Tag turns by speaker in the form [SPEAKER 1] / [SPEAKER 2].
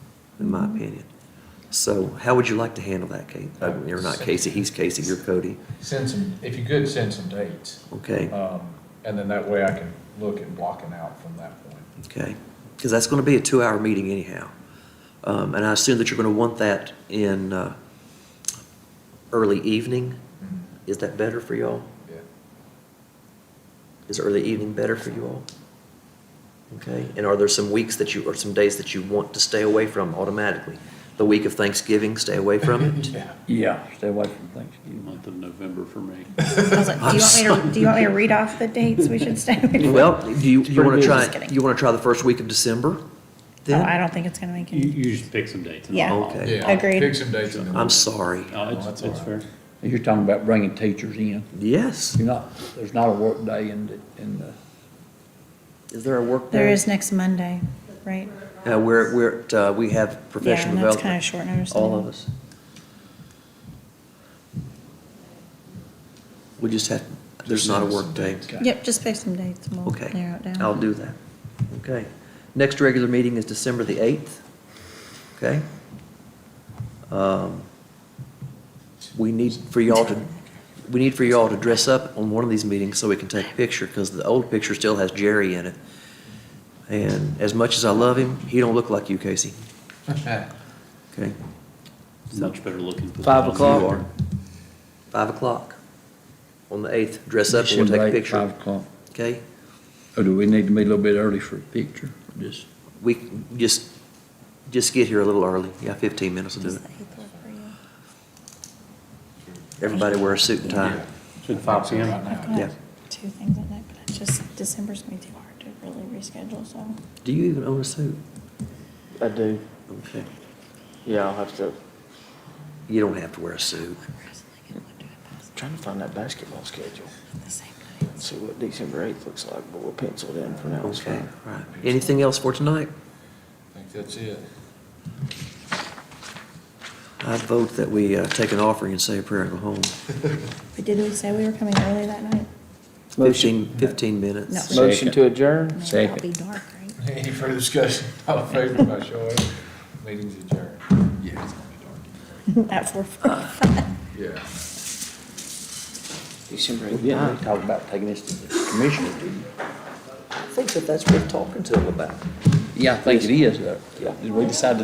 [SPEAKER 1] in my opinion. So how would you like to handle that, Kate? Uh, You're not Casey, he's Casey, you're Cody.
[SPEAKER 2] Send some, if you could, send some dates.
[SPEAKER 1] Okay,
[SPEAKER 2] Um, And then that way I can look at blocking out from that point.
[SPEAKER 1] okay. Because that's going to be a two-hour meeting anyhow. Um, And I assume that you're going to want that in uh, early evening? Is that better for y'all?
[SPEAKER 2] Yeah.
[SPEAKER 1] Is early evening better for you all? Okay, and are there some weeks that you, or some days that you want to stay away from automatically? The week of Thanksgiving, stay away from it?
[SPEAKER 2] Yeah.
[SPEAKER 3] Yeah, stay away from Thanksgiving.
[SPEAKER 4] month of November for me.
[SPEAKER 5] I was like, do you want me to, do you want me to read off the dates we should stay away from?
[SPEAKER 1] Well, do you, you want to
[SPEAKER 3] Pretty
[SPEAKER 1] try,
[SPEAKER 5] busy.
[SPEAKER 1] you want to try the first week of December?
[SPEAKER 5] Oh, I
[SPEAKER 1] Then?
[SPEAKER 5] don't think it's gonna make
[SPEAKER 4] You,
[SPEAKER 5] any,
[SPEAKER 4] you just pick some dates. and
[SPEAKER 5] Yeah.
[SPEAKER 4] I'll-
[SPEAKER 1] Okay.
[SPEAKER 2] Yeah, I'll
[SPEAKER 5] Agreed.
[SPEAKER 2] Pick some dates and then.
[SPEAKER 1] I'm sorry.
[SPEAKER 4] No,
[SPEAKER 2] Oh,
[SPEAKER 4] it's,
[SPEAKER 2] that's
[SPEAKER 4] it's
[SPEAKER 2] all
[SPEAKER 4] fair.
[SPEAKER 3] You're talking about bringing teachers in.
[SPEAKER 1] Yes.
[SPEAKER 3] You're not, there's not a work day in, the- in the,
[SPEAKER 1] Is there a work day?
[SPEAKER 5] there is next Monday, right?
[SPEAKER 1] Uh, we're, we're, at, uh, we have
[SPEAKER 5] Yeah,
[SPEAKER 1] professional
[SPEAKER 5] and that's
[SPEAKER 1] development.
[SPEAKER 5] kinda short notice.
[SPEAKER 1] All of us. We just have, there's not a work day.
[SPEAKER 5] Yep, just pick some dates and we'll narrow
[SPEAKER 1] Okay,
[SPEAKER 5] it down.
[SPEAKER 1] I'll do that. Okay. Next regular meeting is December the 8th, okay? Um, We need for y'all to, we need for y'all to dress up on one of these meetings so we can take a picture, because the old picture still has Jerry in it. And as much as I love him, he don't look like you, Casey, okay?
[SPEAKER 4] It's Much better looking. for the
[SPEAKER 3] Five
[SPEAKER 4] month.
[SPEAKER 3] o'clock?
[SPEAKER 1] You are. Five o'clock on the 8th, dress up and
[SPEAKER 3] Should
[SPEAKER 1] we'll take a
[SPEAKER 3] wait
[SPEAKER 1] picture,
[SPEAKER 3] Five o'clock.
[SPEAKER 1] okay?
[SPEAKER 3] Or do we need to be a little bit early for a picture? Or Just,
[SPEAKER 1] We can just, just get here a little early, yeah, 15 minutes will do
[SPEAKER 5] Does
[SPEAKER 1] it.
[SPEAKER 5] the eighth work for you?
[SPEAKER 1] Everybody wear a suit and tie.
[SPEAKER 4] Should five P
[SPEAKER 2] Right
[SPEAKER 5] I've
[SPEAKER 2] now.
[SPEAKER 5] got
[SPEAKER 1] Yeah.
[SPEAKER 5] Two things at night, but it's just, December's gonna be too hard to really reschedule, so.
[SPEAKER 1] Do you even own a suit?
[SPEAKER 6] I do.
[SPEAKER 1] Okay.
[SPEAKER 6] Yeah, I'll have to. I'm
[SPEAKER 1] You don't have to wear a suit.
[SPEAKER 6] trying to find that basketball schedule.
[SPEAKER 5] The same night.
[SPEAKER 6] Let's see what December 8th looks like, but we're penciled in for now. It's
[SPEAKER 1] Okay,
[SPEAKER 6] fine.
[SPEAKER 1] right. Anything else for tonight?
[SPEAKER 2] I think that's it.
[SPEAKER 1] I vote that we uh, take an offering and say a prayer and go home.
[SPEAKER 5] But did we say we were coming early that night?
[SPEAKER 1] 15, 15
[SPEAKER 5] No.
[SPEAKER 1] minutes.
[SPEAKER 6] Motion to adjourn?
[SPEAKER 5] Man,
[SPEAKER 3] Second.
[SPEAKER 5] That'll be dark, right?
[SPEAKER 2] Any further discussion? All in favor, by show of hands. Meeting's adjourned. Yeah. it's gonna be
[SPEAKER 5] At four forty-five.
[SPEAKER 2] dark. Yeah.
[SPEAKER 6] December
[SPEAKER 3] we
[SPEAKER 6] 8th.
[SPEAKER 3] didn't really talk about taking this to the commissioners, did you?
[SPEAKER 1] I think that that's worth talking to them about.
[SPEAKER 3] Yeah, I think it is, though.
[SPEAKER 1] Yeah.
[SPEAKER 3] Did we decide to